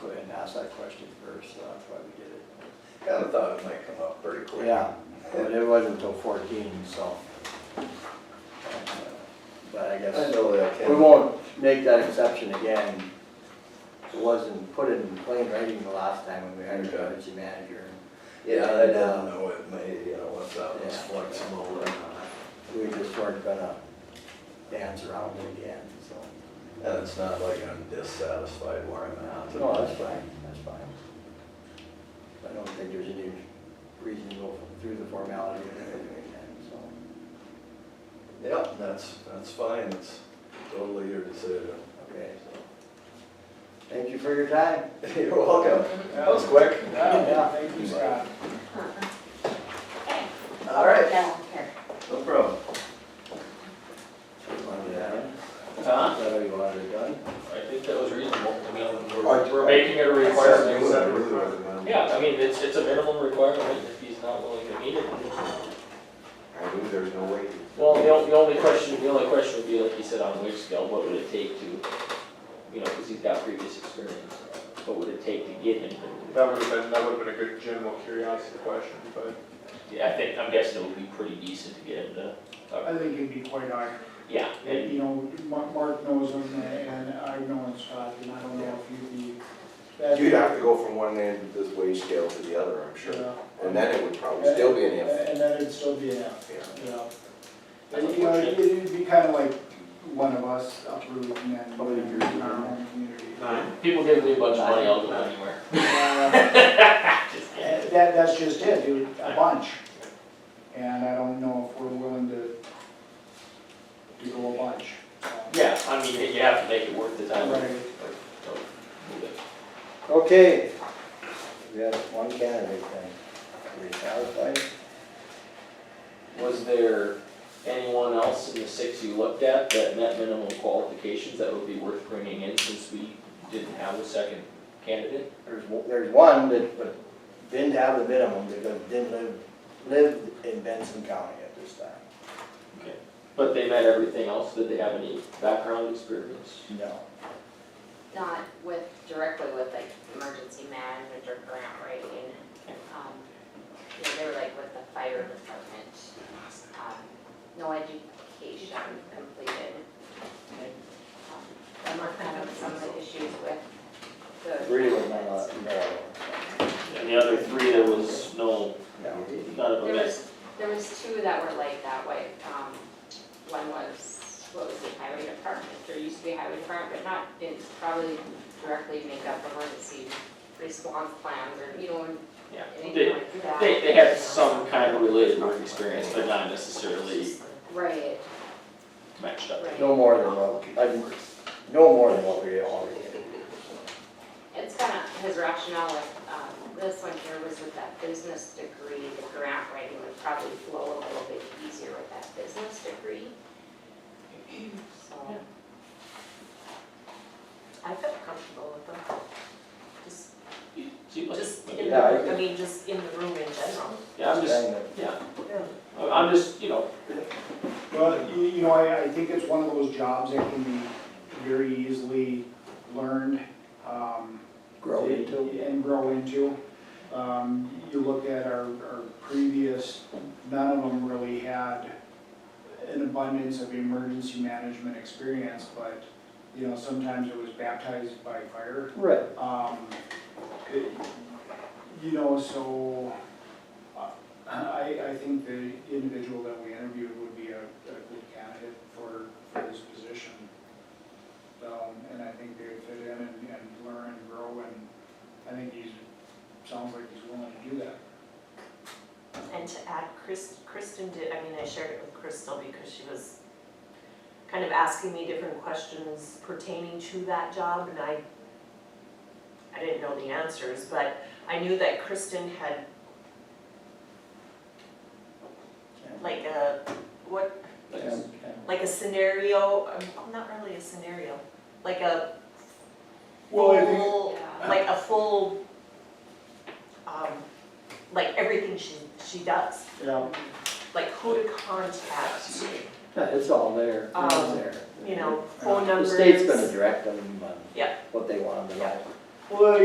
go ahead and ask that question first, so that's why we did it. Kinda thought it might come up pretty quick. Yeah, but it wasn't until fourteen, so. Uh, But I I guess, know that. we won't make that exception again. It wasn't put in plain writing the last time when we hired an Okay. emergency manager. Yeah, I don't know, it may, you know, what's up, it's Yeah. flexible or not. We just weren't gonna dance around it again, so. And it's not like I'm dissatisfied where I'm at. No, that's fine, that's fine. I don't think there's any reason to go through the formality of doing that, so. Yep, that's, that's fine, it's totally your decision. Okay, so, thank you for your time. You're welcome. That was quick. Yeah, thank you, Scott. All right, Yeah, here. no problem. So you wanted that in? Huh? Is that all you wanted done? I think that was reasonable. I mean, Right. we're, we're making it a That's what I really requirement. recommend. Yeah, I mean, it's, it's a minimum requirement if he's not willing to meet it. I knew there's no way. Well, the only, the only question, the only question would be, like you said, on wage scale, what would it take to, you know, because he's got previous experience. What would it take to get him? to- That would have been, that would have been a good general curiosity question, but Yeah, I think, I'm guessing it would be pretty decent to get him to, I think it'd be quite hard. yeah. and- You know, Ma- Mark knows him and I know him, Scott, and I don't know if you'd be. that'd be- You'd have to go from one end of this wage scale to the other, I'm sure. Yeah. And then it would probably still be an F. And then it'd still be an F, Yeah. yeah. And, you know, it'd- it'd be kind of like one of us uprooting and Probably living in our yours. own community. People give me a bunch of money, I'll go anywhere. Uh, Just kidding. That, that's just it, dude, a bunch. And I don't know if we're willing to, to go a bunch. Yeah, I mean, you have to make it worth the time. Right. So, move it. Okay. We have one candidate then. Are we satisfied? Was there anyone else in the six you looked at that met minimum qualifications that would be worth bringing in since we didn't have a second candidate? There's, one- there's one that, but didn't have the minimum because didn't live, lived in Benson County at this time. But they met everything else, did they have any background experience? No. Not with, directly with like emergency management or grant writing. Um, You know, they were like with the fire department, um, no education completed. Um, And we're kind of some of the issues with the. Really was not, a- no, And the other three, there was no, no. none of them There met. was, there was two that were like that way. Um, One was, what was it, highway department, or used to be highway department, but not, didn't probably directly make up emergency response plans or, you know, Yeah, anything they, like that. they, they had some kind of related work experience, but not necessarily Right, matched up. right. No more than what, I- no more than what we already did. It's kind of, his rationale with, um, this one here was with that business degree, the grant writing would probably flow a little bit easier with that business degree. So. Yeah. I felt comfortable with them. Just, See, like- just in Yeah, I the, I think- mean, just in the room in general. Yeah, I'm just, Saying that yeah, Yeah. I'm- I'm just, you know, Well, you, you know, I, I think it's one of those jobs that can be very easily learned, um, Grow into. and grow into. Um, you look at our, our previous, none of them really had an abundance of emergency management experience, but, you know, sometimes it was baptized by fire. Right. Um, it- you know, so uh, I, I think the individual that we interviewed would be a, a good candidate for, for this position. Um, and I think they'd fit in and, and learn and grow and I think he's, sounds like he's willing to do that. And to add, Chris, Kristen did, I mean, I shared it with Crystal because she was kind of asking me different questions pertaining to that job and I, I didn't know the answers, but I knew that Kristen had like a, what, like, like a scenario, um, not really a scenario, like a Well, I think- full- Yeah. like a full, um, like everything she, she does, Yeah. like who to contact, Yeah, it's all there, it's Um, there. you know, phone The numbers. state's gonna direct them on Yeah. what they want them to know. Yeah. Well,